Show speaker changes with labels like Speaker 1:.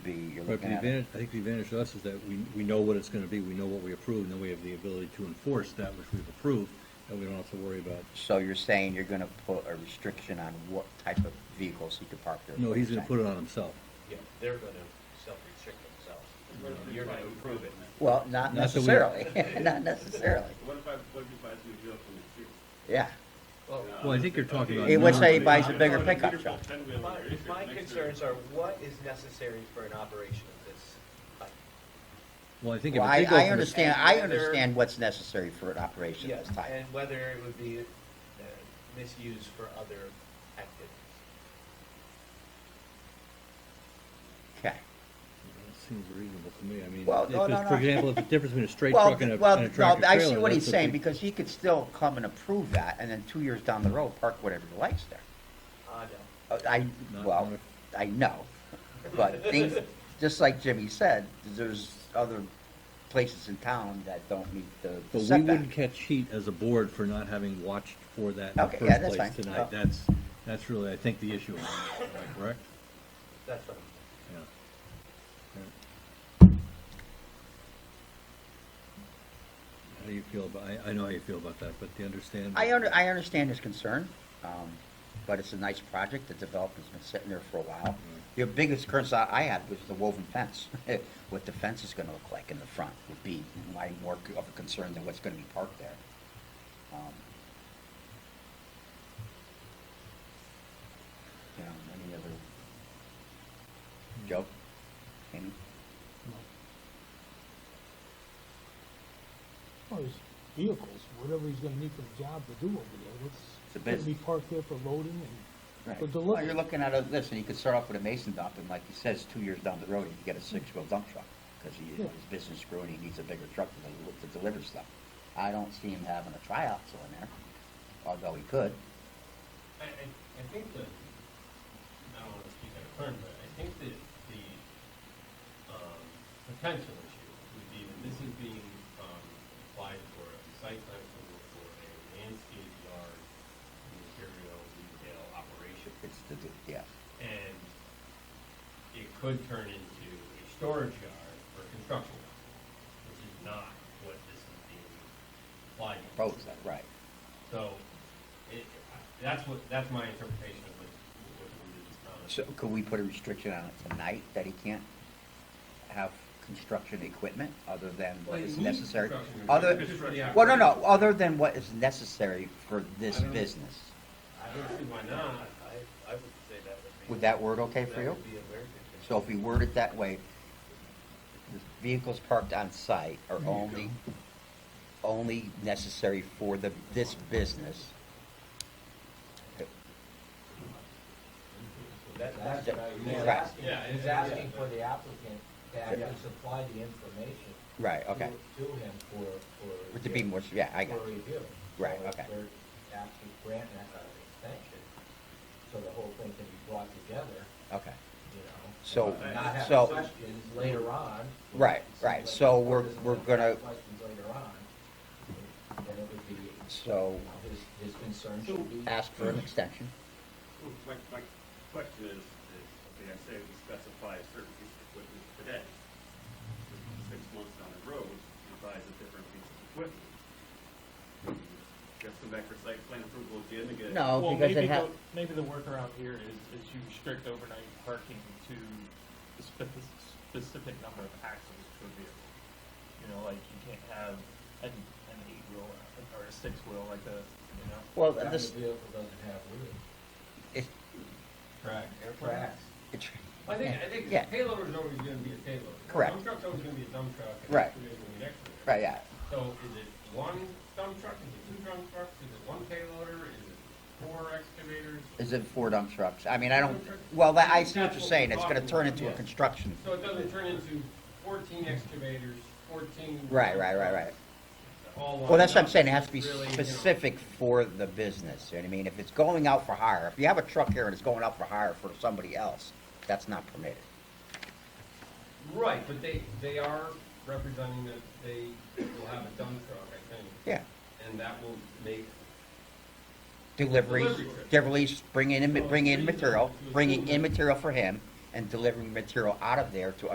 Speaker 1: be, you're
Speaker 2: Right,
Speaker 1: looking
Speaker 2: but the
Speaker 1: at it.
Speaker 2: advantage, I think the advantage to us is that we, we know what it's gonna be, we know what we approve, and then we have the ability to enforce that which we've approved, and we don't have to worry about,
Speaker 1: So you're saying you're gonna put a restriction on what type of vehicles he could park there?
Speaker 2: no, he's gonna put it on himself.
Speaker 3: Yeah, they're gonna self-restrict themselves. You're gonna approve it.
Speaker 1: Well, not
Speaker 2: Not that we-
Speaker 1: necessarily, not necessarily,
Speaker 4: What if I, what if he buys you a vehicle from the street?
Speaker 1: yeah.
Speaker 2: Well, I think you're talking about.
Speaker 1: He would say he
Speaker 2: non-
Speaker 1: buys a bigger
Speaker 4: If I
Speaker 1: pickup
Speaker 4: bought beautiful
Speaker 1: truck.
Speaker 4: 10-wheeler
Speaker 3: My,
Speaker 4: and it's
Speaker 3: my
Speaker 4: next to-
Speaker 3: concerns are what is necessary for an operation of this type?
Speaker 2: Well, I think if
Speaker 1: Well,
Speaker 2: it
Speaker 1: I,
Speaker 2: did go
Speaker 1: I
Speaker 2: from the-
Speaker 1: understand, I
Speaker 3: And whether-
Speaker 1: understand what's necessary for an operation of
Speaker 3: Yes,
Speaker 1: this type.
Speaker 3: and whether it would be uh, misused for other activities.
Speaker 1: Okay.
Speaker 2: That Seems reasonable to me, I mean,
Speaker 1: Well,
Speaker 2: if
Speaker 1: no,
Speaker 2: it's-
Speaker 1: no,
Speaker 2: for
Speaker 1: no.
Speaker 2: example, if the difference between a straight
Speaker 1: Well,
Speaker 2: truck and a,
Speaker 1: well,
Speaker 2: and a
Speaker 1: no,
Speaker 2: tractor
Speaker 1: I see
Speaker 2: trailer,
Speaker 1: what he's
Speaker 2: that's a
Speaker 1: saying,
Speaker 2: big-
Speaker 1: because he could still come and approve that, and then two years down the road, park whatever he likes there.
Speaker 3: Ah, no.
Speaker 1: Uh, I,
Speaker 2: Not-
Speaker 1: well,
Speaker 2: not-
Speaker 1: I know, but things, just like Jimmy said, there's other places in town that don't meet the
Speaker 2: But we
Speaker 1: setback.
Speaker 2: wouldn't catch heat as a board for not having watched for that in the
Speaker 1: Okay, yeah, that's
Speaker 2: first place
Speaker 1: fine. Oh.
Speaker 2: tonight, that's, that's really, I think, the issue, am I correct?
Speaker 3: That's what I'm,
Speaker 2: Yeah. Yeah. How do you feel about, I, I know how you feel about that, but do you understand?
Speaker 1: I under, I understand his concern, um, but it's a nice project, the developer's been sitting there for a while. Your biggest concern I had was the woven fence, what the fence is gonna look like in the front would be my more c- of a concern than what's gonna be parked there. Um, You know, any other, Joe, Amy?
Speaker 5: Well, his Oh, vehicles, whatever he's gonna need for the job to do over there,
Speaker 1: It's a
Speaker 5: that's, gonna be
Speaker 1: business.
Speaker 5: parked there for loading and for
Speaker 1: Well,
Speaker 5: delivery.
Speaker 1: you're looking at a- this, and you could start off with a mason dump, and like he says, two years down the road, you get a six-wheel dump truck, because he,
Speaker 5: Yeah.
Speaker 1: his business grew and he needs a bigger truck to, del- to deliver stuff. I don't see him having a tryout still in there, although he could.
Speaker 4: I, I, I think that, I don't wanna speak out of turn, but I think that the, um, potential issue would be when this is being, um, applied for a site plan approval for a landscape yard material retail operation.
Speaker 1: It's the, d- yeah.
Speaker 4: And it could turn into a storage yard or construction yard, which is not what this is being applied to.
Speaker 1: Proposed that, right.
Speaker 4: So, it, that's what, that's my interpretation of what, what the religious comment.
Speaker 1: So could we put a restriction on it tonight, that he can't have construction equipment other than what is necessary? Other, well, no, no, other than what is necessary for this
Speaker 4: I don't-
Speaker 1: business.
Speaker 4: I don't see why not.
Speaker 3: I, I would say that would be.
Speaker 1: Would that word okay for you?
Speaker 3: That would be a very good concern.
Speaker 1: So if we word it that way, the vehicles parked on site are only, only necessary for the, this business.
Speaker 3: That, that's what I
Speaker 1: Yeah.
Speaker 3: was
Speaker 1: Right.
Speaker 3: asking,
Speaker 4: Yeah,
Speaker 3: he's
Speaker 4: yeah.
Speaker 3: asking for the applicant to actually supply the information.
Speaker 1: Right, okay.
Speaker 3: To to him for, for.
Speaker 1: To be more, yeah, I got
Speaker 3: For
Speaker 1: you.
Speaker 3: review.
Speaker 1: Right,
Speaker 3: So if
Speaker 1: okay.
Speaker 3: We're asking Grant an uh, extension, so the whole thing can be brought together,
Speaker 1: Okay.
Speaker 3: you know?
Speaker 1: So,
Speaker 3: and Not have
Speaker 1: so-
Speaker 3: questions later on.
Speaker 1: Right, right. So we're- we're gonna-
Speaker 3: Questions later on, then it would be, you
Speaker 1: So
Speaker 3: know, his, his concern should be.
Speaker 1: ask for an extension.
Speaker 4: My, my question is, is, okay, I say we specify a certain piece of equipment today. Six months down the road, he buys a different piece of equipment. Gets them back for site plan approval again to get.
Speaker 1: No,
Speaker 6: Well,
Speaker 1: because
Speaker 6: maybe
Speaker 1: it ha-
Speaker 6: the, maybe the workaround here is, is you restrict overnight parking to the spe- specific number of axles per vehicle. You know, like you can't have an, an eight wheel or a six wheel like a, you know?
Speaker 1: well,
Speaker 3: That
Speaker 1: this,
Speaker 3: vehicle doesn't have wheels.
Speaker 1: it,
Speaker 3: Track. Tracks.
Speaker 1: it's,
Speaker 4: I think, I think
Speaker 1: Yeah.
Speaker 4: a payloader is always gonna be a payloader. A
Speaker 1: Correct.
Speaker 4: Dump truck's always gonna be a dump truck. and
Speaker 1: Right.
Speaker 4: excavator's gonna be an excavator.
Speaker 1: right, yeah.
Speaker 4: So is it one dump truck, is it two dump trucks, is it one payloader, is it four excavators?
Speaker 1: Is it four dump trucks? I mean, I don't, well, that- I see what you're saying. It's gonna turn into a construction.
Speaker 4: So it doesn't turn into fourteen excavators, fourteen.
Speaker 1: Right, right, right, right.
Speaker 4: All
Speaker 1: Well, that's what
Speaker 4: lined
Speaker 1: I'm saying, it
Speaker 4: up.
Speaker 1: has to be
Speaker 4: It's really, you know,
Speaker 1: specific for the business, you know what I mean? If it's going out for hire, if you have a truck here and it's going out for hire for somebody else, that's not permitted.
Speaker 4: Right, but they, they are representing that they will have a dump truck, I think,
Speaker 1: Yeah.
Speaker 4: and that will make.
Speaker 1: Deliveries,
Speaker 4: Delivery.
Speaker 1: deliveries, bring in, bring in material, bringing in material for him, and delivering material out of there to